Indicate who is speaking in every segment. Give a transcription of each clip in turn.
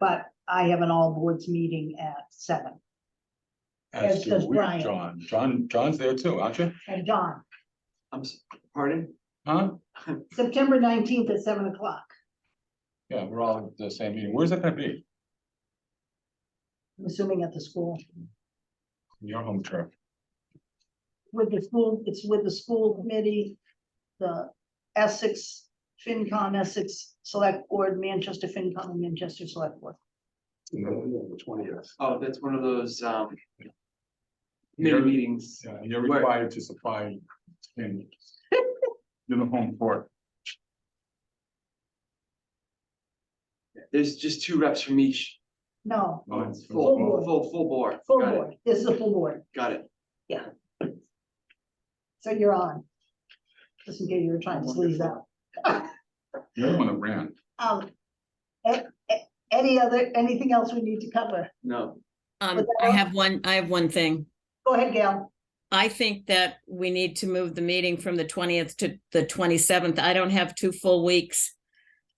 Speaker 1: but I have an all boards meeting at seven,
Speaker 2: As
Speaker 1: As
Speaker 2: do
Speaker 1: does
Speaker 2: we,
Speaker 1: Brian.
Speaker 2: John, John, John's there too, aren't you?
Speaker 1: and John,
Speaker 3: I'm, s- pardon?
Speaker 2: Huh?
Speaker 1: September nineteenth at seven o'clock.
Speaker 2: Yeah, we're all at the same meeting. Where's that gonna be?
Speaker 1: I'm assuming at the school,
Speaker 2: Your home turf.
Speaker 1: with the school, it's with the school committee, the Essex, FinCon, Essex Select Board, Manchester FinCon, and Manchester Select Board.
Speaker 4: The twentieth.
Speaker 3: Oh, that's one of those, um.
Speaker 2: You're-
Speaker 3: Mini meetings.
Speaker 2: Yeah, You're
Speaker 3: Where?
Speaker 2: required to supply in in the home court.
Speaker 3: There's just two reps from each.
Speaker 1: No,
Speaker 2: Oh,
Speaker 3: Full,
Speaker 2: it's for the
Speaker 3: full,
Speaker 1: board.
Speaker 3: full- full board.
Speaker 1: full
Speaker 3: Got it,
Speaker 1: board, this is a full board,
Speaker 3: Got it.
Speaker 1: so you're on. Just in case you were trying to squeeze out.
Speaker 2: You're the one that ran.
Speaker 1: Um, a- a- any other, anything else we need to cover?
Speaker 3: No,
Speaker 5: Um,
Speaker 1: Was that
Speaker 5: I
Speaker 1: all?
Speaker 5: have one, I have one thing.
Speaker 1: Go ahead, Gail.
Speaker 5: I think that we need to move the meeting from the twentieth to the twenty-seventh. I don't have two full weeks.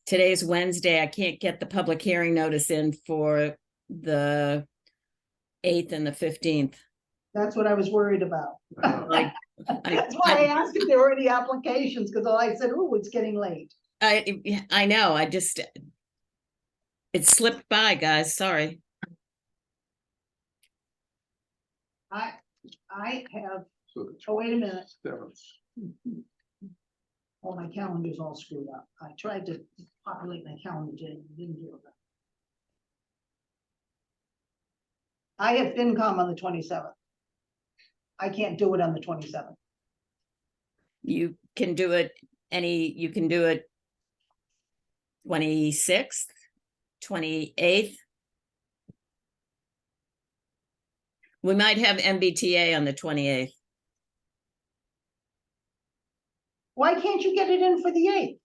Speaker 5: Today's Wednesday. I can't get the public hearing notice in for the eighth and the fifteenth.
Speaker 1: That's what I was worried about.
Speaker 5: Like, I,
Speaker 1: That's why I asked if there were any applications, because I said, oh, it's getting late.
Speaker 5: I, I know, I just it slipped by, guys, sorry.
Speaker 1: I, I have,
Speaker 4: So the
Speaker 1: oh, wait a minute,
Speaker 4: seventh.
Speaker 1: oh, my calendar's all screwed up. I tried to populate my calendar, didn't didn't do it. I have FinCom on the twenty-seventh. I can't do it on the twenty-seventh.
Speaker 5: You can do it any, you can do it twenty-sixth, twenty-eighth. We might have MBTA on the twenty-eighth.
Speaker 1: Why can't you get it in for the eighth?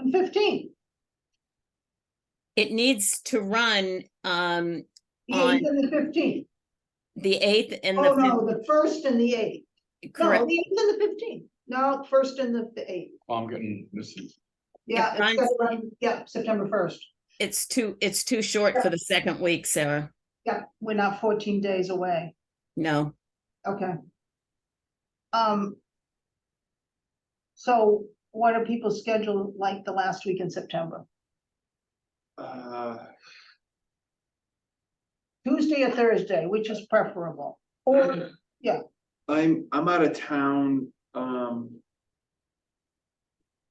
Speaker 1: And fifteenth?
Speaker 5: It needs to run um
Speaker 1: The
Speaker 5: On-
Speaker 1: eighth and the fifteenth.
Speaker 5: the eighth and
Speaker 1: Oh,
Speaker 5: the
Speaker 1: no, the first and the eighth.
Speaker 5: fif-
Speaker 1: No,
Speaker 5: correct.
Speaker 1: the eighth and the fifteenth. No, first and the the eighth.
Speaker 2: Oh, I'm getting, this is,
Speaker 1: Yeah,
Speaker 5: It
Speaker 1: it's
Speaker 5: runs-
Speaker 1: gotta run- yeah, September first.
Speaker 5: It's too, it's too short for the second week, Sarah.
Speaker 1: Yeah, we're not fourteen days away.
Speaker 5: No,
Speaker 1: Okay. Um. So what are people's schedule like the last week in September?
Speaker 3: uh,
Speaker 1: Tuesday or Thursday, which is preferable? Or,
Speaker 3: I'm, I'm out of town, um.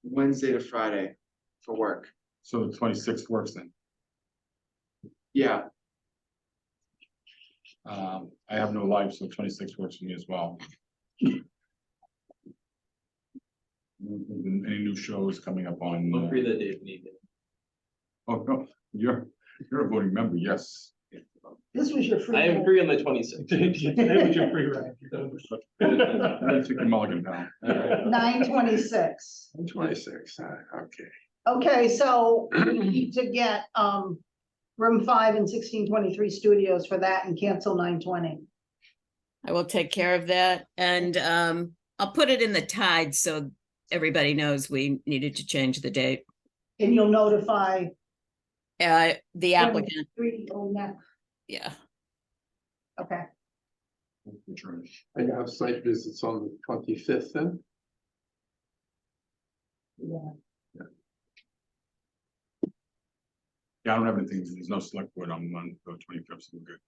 Speaker 3: Wednesday to Friday for work.
Speaker 2: so the twenty-sixth works then.
Speaker 3: Yeah,
Speaker 2: Um, I have no life, so twenty-six works for me as well. Any new shows coming up on?
Speaker 6: I'm
Speaker 2: uh,
Speaker 6: free that day if needed.
Speaker 2: Oh, no, you're, you're a voting member, yes.
Speaker 1: this was your free.
Speaker 6: I am
Speaker 1: day.
Speaker 6: free on the twenty sixth.
Speaker 2: Let's take the mulligan now.
Speaker 1: Nine twenty-six.
Speaker 4: Twenty-six, uh, okay.
Speaker 1: Okay, so we need to get, um, room five and sixteen twenty-three studios for that and cancel nine twenty.
Speaker 5: I will take care of that and um I'll put it in the tide so everybody knows we needed to change the date.
Speaker 1: And you'll notify
Speaker 5: Uh, the
Speaker 1: Yeah.
Speaker 5: applicant,
Speaker 1: three oh nine,
Speaker 5: yeah.
Speaker 1: okay.
Speaker 4: And you have site visits on the twenty-fifth then?
Speaker 2: Yeah, I don't have anything, there's no select board on one, the twenty-fifth, so we're good.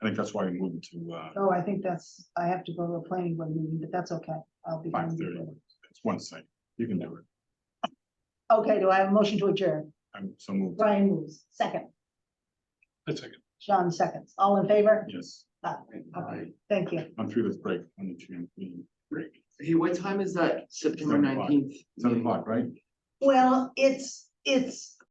Speaker 2: I think that's why we moved to, uh,
Speaker 1: Oh, I think that's, I have to go to a planning board meeting, but that's okay. I'll be.
Speaker 2: five
Speaker 1: fine with
Speaker 2: thirty.
Speaker 1: it.
Speaker 2: It's one site, you can do it,
Speaker 1: Okay, do I have a motion to adjourn?
Speaker 2: I'm so moved,
Speaker 1: Brian moves, second.
Speaker 4: A second.
Speaker 1: Sean seconds. All in favor?
Speaker 2: yes,
Speaker 1: Ah, Okay, thank you.
Speaker 2: I'm through this break, on the champion break.
Speaker 3: hey, what time is that? September
Speaker 2: Seven o'clock.
Speaker 3: nineteenth?
Speaker 2: Seven o'clock, right?
Speaker 1: Well, it's, it's